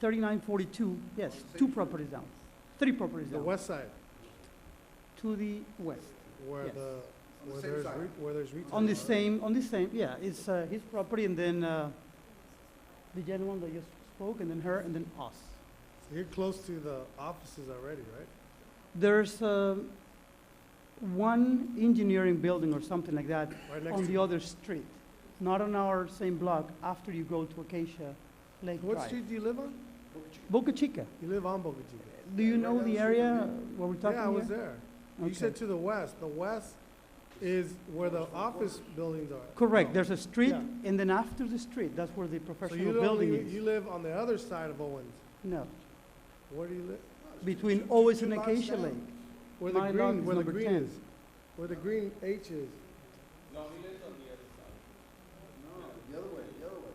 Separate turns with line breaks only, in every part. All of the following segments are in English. thirty-nine forty-two, yes, two properties down, three properties
The
down,
west side,
to the west.
where
Yes.
the,
On the
where
same
there's,
side.
re- where there's retail.
On the same, on the same, yeah, it's uh, his property and then uh, the gentleman that just spoke, and then her, and then us.
You're close to the offices already, right?
There's um, one engineering building or something like that
Right next
on the
to,
other street, not on our same block, after you go to Acacia Lake
what
Drive.
street do you live on?
Boca Chica,
You live on Boca Chica.
do you
Right
know
down
the
the street,
area where we're talking
Yeah, I was
here?
there. You
Okay.
said to the west, the west is where the office buildings are.
Correct, there's a street,
Yeah.
and then after the street, that's where the
So
professional
you only,
building
you
is.
live on the other side of Owens.
No,
Where do you live?
between Owens and
two blocks
Acacia
down.
Lake.
Where the
My lot
green,
is
where the
number
green
10.
is, where the green H is.
The other way, the other way.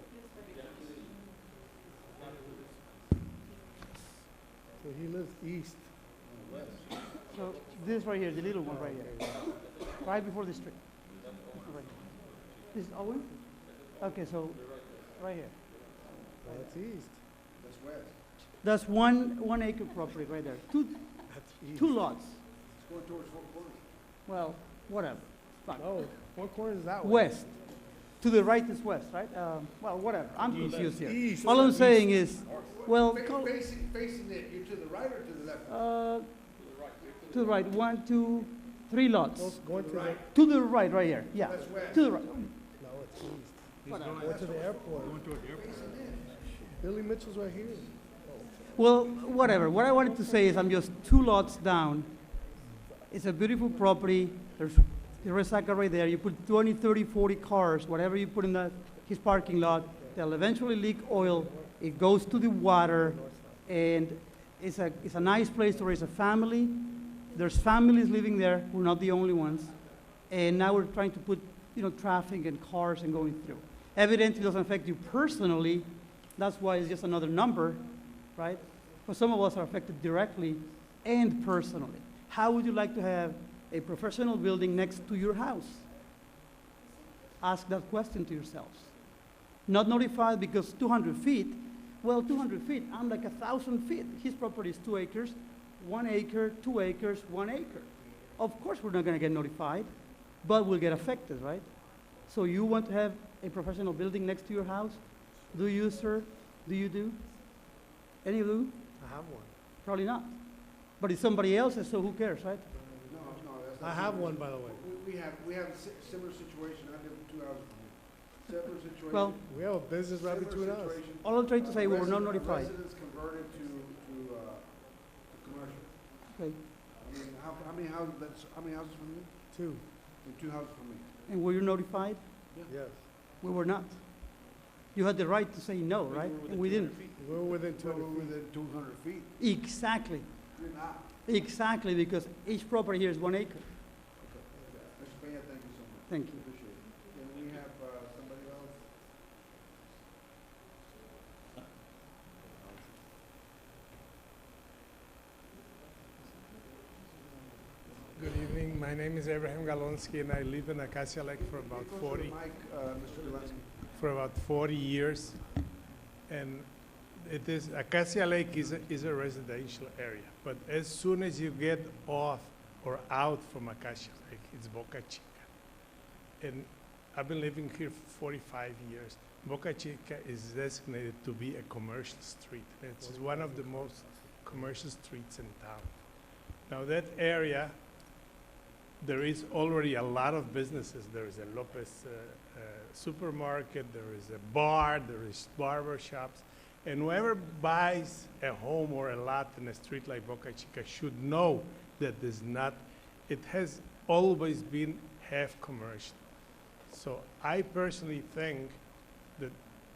So he lives east.
So this right here, the little one right here, right before the street. Right. This is Owen? Okay, so, right here.
Oh, That's east.
That's west.
That's one, one acre property right there, two,
That's east.
two lots,
It's going towards Fort Worth.
well, whatever. Fuck.
No, Four Corners is that way.
West, to the right is west, right? Um, Well, whatever, I'm confused here.
East.
All I'm saying is, well,
Fa-
call-
Facing, facing it, you're to the right or to the left?
uh, to the right, one, two, three lots.
Goes- Going to the, no,
To the right, right here, yeah,
That's west.
to the right,
it's east.
whatever.
Going to the airport. Billy Mitchell's right here.
Well, whatever. What I wanted to say is I'm just two lots down. It's a beautiful property. There's the recycle right there. You put 20, 30, 40 cars, whatever you put in that, his parking lot, they'll eventually leak oil. It goes to the water, and it's a, it's a nice place to raise a family. There's families living there. We're not the only ones. And now we're trying to put, you know, traffic and cars and going through. Evidently, it doesn't affect you personally. That's why it's just another number, right? But some of us are affected directly and personally. How would you like to have a professional building next to your house? Ask that question to yourselves. Not notified because 200 feet, well, 200 feet, I'm like a 1,000 feet. His property is two acres, one acre, two acres, one acre. Of course, we're not going to get notified, but we'll get affected, right? So you want to have a professional building next to your house? Do you, sir? Do you do? Any of you?
I have one.
Probably not. But it's somebody else's, so who cares, right?
No, no, that's not.
I have one, by the way.
We, we have, we have a si- similar situation, I live two hours from here. Similar situation.
Well,
We have a business right
similar
between us.
situation.
All I'm trying to
Uh,
say, we're not
resident-
notified.
Residents converted to, to, uh, to commercial.
Okay.
I mean, how, how many houses, that's, how many houses from you?
Two,
And two houses from me.
And were you notified?
yes.
We were not. You had the right to say no, right? And we didn't.
We're within two
We're
hundred feet.
within two hundred feet.
Exactly,
You're not.
exactly, because each property here is one acre.
Mr. Peña, thank you so much.
Thank you.
Appreciate it. Can we have, uh, somebody else?
Good evening. My name is Abraham Galonsky, and I live in Acacia Lake for about
Go to the
40
mic, uh, Mr. Delansky.
for about 40 years. And it is Acacia Lake is a, is a residential area, but as soon as you get off or out from Acacia Lake, it's Boca Chica. And I've been living here for 45 years. Boca Chica is designated to be a commercial street. It's one of the most commercial streets in town. Now that area, there is already a lot of businesses. There is a Lopez uh, uh, supermarket, there is a bar, there is barber shops. And whoever buys a home or a lot in a street like Boca Chica should know that is not, it has always been half commercial. So I personally think that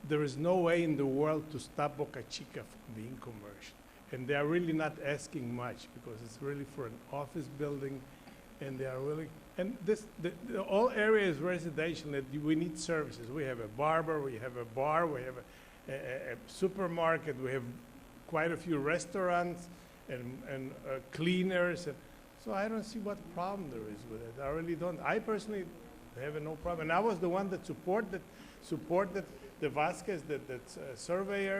there is no way in the world to stop Boca Chica from being commercial. And they are really not asking much because it's really for an office building and they are really, and this, the, the whole area is residential and we need services. We have a barber, we have a bar, we have a, a, a supermarket, we have quite a few restaurants and, and uh, cleaners. And so I don't see what problem there is with it. I really don't. I personally have no problem. And I was the one that supported, supported the Vasquez, the, the uh, surveyor,